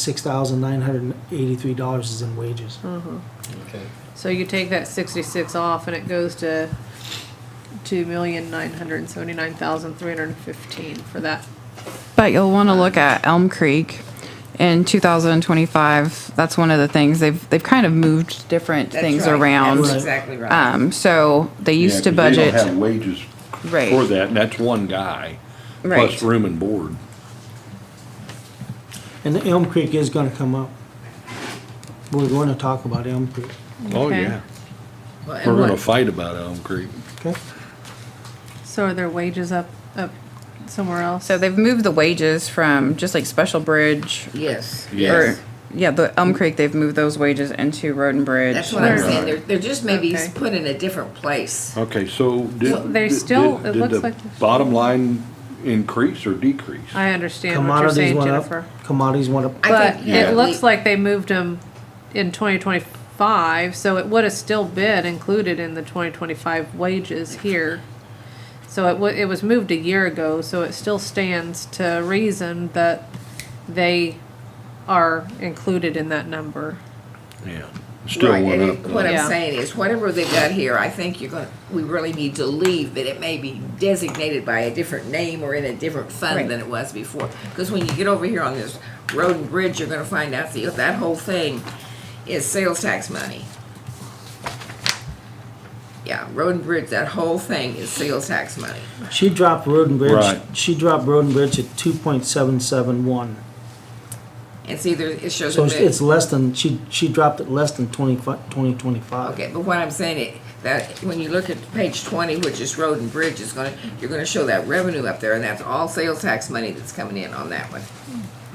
six thousand nine hundred and eighty-three dollars is in wages. Hmm. Okay, So you take that sixty-six off and it goes to two million nine hundred and seventy-nine thousand three hundred and fifteen for that. But you'll want to look at Elm Creek in 2025. That's one of the things they've they've kind of moved different That's things right. around. That's exactly right. Um, so they used to Yeah, 'cause They budget don't have wages Right. for that, and that's one guy. Right. Plus room and board. And Elm Creek is gonna come up. We're going to talk about Elm Creek, Oh, Okay. yeah. Well, and We're gonna what- fight about Elm Creek. okay? So are their wages up, up somewhere else? so they've moved the wages from just like Special Bridge Yes. Yes. or yeah, the Elm Creek they've moved those wages into Road and Bridge. That's what I'm Right. saying. They're, they're just maybe Okay. put in a different place. Okay, so Well, did. they did- still- did- it did looks the like- Bottom line increase or decrease? I understand what you're Commodities saying, went Jennifer. up, commodities went up. I But think, yeah, it looks we- like they moved them in twenty twenty-five, so it would have still been included in the twenty twenty-five wages here. So it wa- it was moved a year ago, so it still stands to reason that they are included in that number. Yeah. Still Right, went and up. it- What though. Yeah. I'm saying is, whatever they got here, I think you're gonna, we really need to leave, that it may be designated by a different name or in a different fund Right. than it was before. Because when you get over here on this road and bridge, you're gonna find out that, that whole thing is sales tax money. Yeah, road and bridge, that whole thing is sales tax money. She dropped Road and Bridge, Right. she dropped Road and Bridge at two point seven seven one. It's either, it shows. So a it's- bit- it's less than, she, she dropped it less than twenty-five, twenty twenty-five. Okay, but what I'm saying is, that when you look at page twenty, which is road and bridge, is gonna, you're gonna show that revenue up there, and that's all sales tax money that's coming in on that one,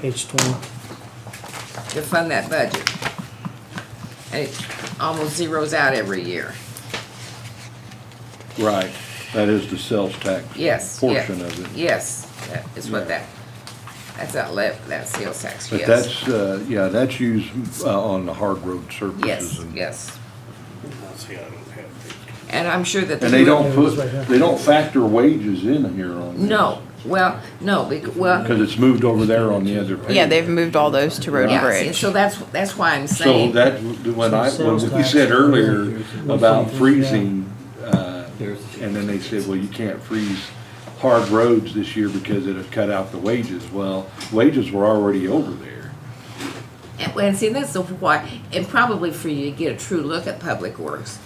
Page twenty. to fund that budget. And it almost zeroes out every year. Right, that is the sales tax. Yes, yeah. Portion of it. Yes, that is what Yeah. that, that's that left, that sales tax, But yes. that's, uh, yeah, that's used, uh, on the hard road surfaces Yes, and. yes. And I'm sure that. And the they road- don't put, they don't factor wages in here on this. No, well, no, bec- well, Cause it's moved over there on the other page. yeah, they've moved all those to Road yeah, and see, Bridge. so that's, that's why I'm So saying. that, when I, when we said earlier about freezing, uh, and then they said, well, you can't freeze hard roads this year because it had cut out the wages. Well, wages were already over there. And, well, and see, that's the why, and probably for you to get a true look at public works.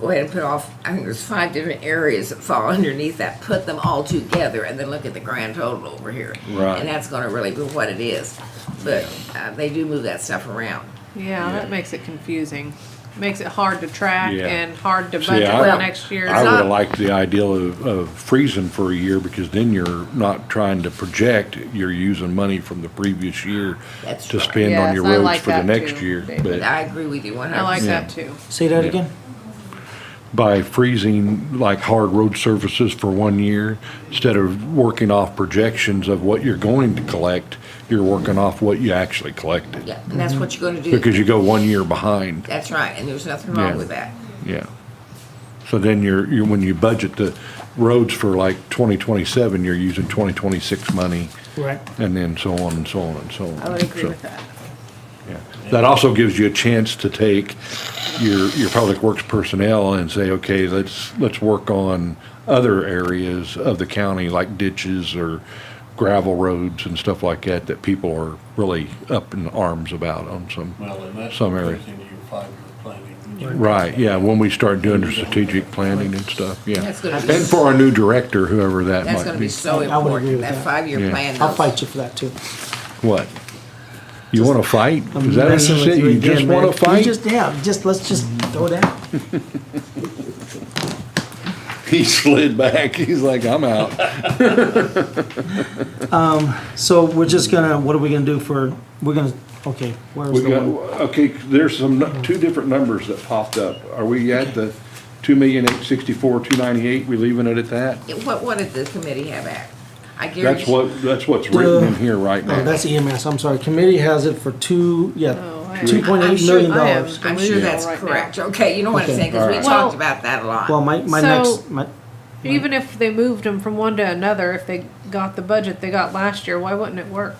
Go ahead and put off, I think there's five different areas that fall underneath that, put them all together and then look at the grand total over here. Right. And that's gonna really be what it is, but, uh, they do move that stuff around. Yeah, that makes it confusing. Makes it hard to track Yeah. and hard to See, budget I- for Well, next year. I not- would've liked the ideal of, of freezing for a year because then you're not trying to project, you're using money from the previous year That's to right. spend on Yes, your I roads like for the that next too, year. David. But I agree with you one I like hundred that too. Say that Yeah. again? by freezing like hard road surfaces for one year, instead of working off projections of what you're going to collect, you're working off what you actually collected. Yeah, and that's what you're gonna do, Because you go one year behind, that's right, and there's nothing Yeah. wrong with that. yeah. So then you're, you, when you budget the roads for like twenty twenty-seven, you're using twenty twenty-six money, Right. and then so on and so on and so on. I would agree So- with that. Yeah. That also gives you a chance to take your, your public works personnel and say, okay, let's, let's work on other areas of the county, like ditches or gravel roads and stuff like that, that people are really up in arms about on some. Well, and that's Some goes area. into your five-year planning. Right, yeah, when we start doing the strategic planning and stuff, yeah. That's gonna be- And for our new director, whoever that That's might gonna be be. so I would agree important, with that. that five-year Yeah. plan. I'll those- fight you for that too. What? You wanna fight? I'm Is that what messing you with said? You just again, man. wanna You fight? just- Yeah, just, let's just throw it out. He slid back. He's like, I'm out. So we're just gonna, what are we gonna do for, we're gonna, okay, where's We the got, one? okay, there's some, nu- two different numbers that popped up. Are we at the two million eight sixty-four, two ninety-eight? We leaving it at that? What, what did the committee have at? I guarantee. That's what, that's what's written in here right Oh, now. that's EMS, I'm sorry, committee has it for two, Oh, yeah, I- two point I'm eight sure- million I am. dollars. I'm sure Yeah. that's Right now. correct. Okay, you know what I'm Okay. saying, because we Alright. talked Well- about that a lot. Well, my, my So- next, my, Even if they moved them from one to another, if they got the budget they got last year, why wouldn't it work?